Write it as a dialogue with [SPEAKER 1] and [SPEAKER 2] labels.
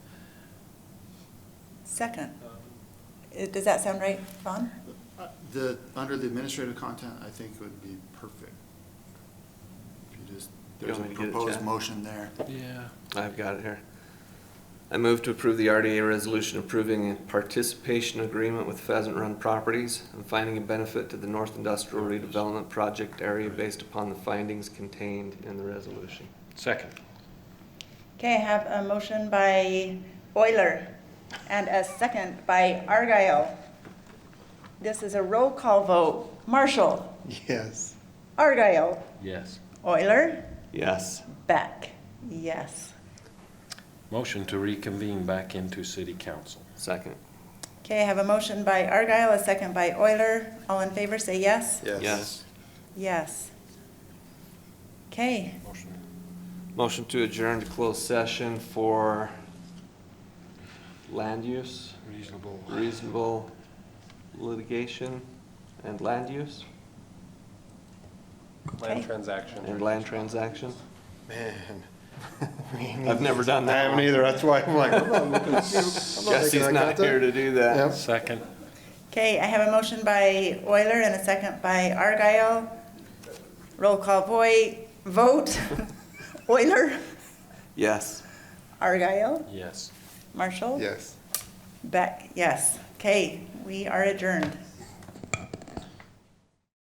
[SPEAKER 1] Second. Uh, Does that sound right, Ron?
[SPEAKER 2] The, under the administrative content, I think would be perfect. If you just,
[SPEAKER 3] You
[SPEAKER 2] there's a
[SPEAKER 3] want me to get it,
[SPEAKER 2] proposed
[SPEAKER 3] Chad?
[SPEAKER 2] motion there.
[SPEAKER 3] Yeah, I've got it here. I move to approve the RDA resolution approving a participation agreement with Pheasant Run Properties and finding a benefit to the North Industrial Redevelopment Project area based upon the findings contained in the resolution.
[SPEAKER 4] Second.
[SPEAKER 1] Okay, I have a motion by Euler and a second by Argyle. This is a roll call vote. Marshall,
[SPEAKER 5] Yes.
[SPEAKER 1] Argyle,
[SPEAKER 4] Yes.
[SPEAKER 1] Euler,
[SPEAKER 3] Yes.
[SPEAKER 1] Beck. Yes.
[SPEAKER 4] Motion to reconvene back into city council.
[SPEAKER 3] Second.
[SPEAKER 1] Okay, I have a motion by Argyle, a second by Euler. All in favor, say yes.
[SPEAKER 3] Yes.
[SPEAKER 1] Yes. Okay,
[SPEAKER 4] Motion.
[SPEAKER 3] Motion to adjourn to closed session for land use,
[SPEAKER 4] Reasonable.
[SPEAKER 3] reasonable litigation and land use
[SPEAKER 1] Okay.
[SPEAKER 4] Land transaction.
[SPEAKER 3] and land transaction.
[SPEAKER 5] Man.
[SPEAKER 3] I've never done
[SPEAKER 5] I
[SPEAKER 3] that
[SPEAKER 5] haven't
[SPEAKER 3] one.
[SPEAKER 5] either, that's why I'm like, I'm not looking.
[SPEAKER 3] Jesse's not here to do that.
[SPEAKER 5] Yep.
[SPEAKER 4] Second.
[SPEAKER 1] okay, I have a motion by Euler and a second by Argyle. Roll call voi- vote. Euler,
[SPEAKER 3] Yes.
[SPEAKER 1] Argyle,
[SPEAKER 4] Yes.
[SPEAKER 1] Marshall.
[SPEAKER 5] Yes.
[SPEAKER 1] Beck, yes. Okay, we are adjourned.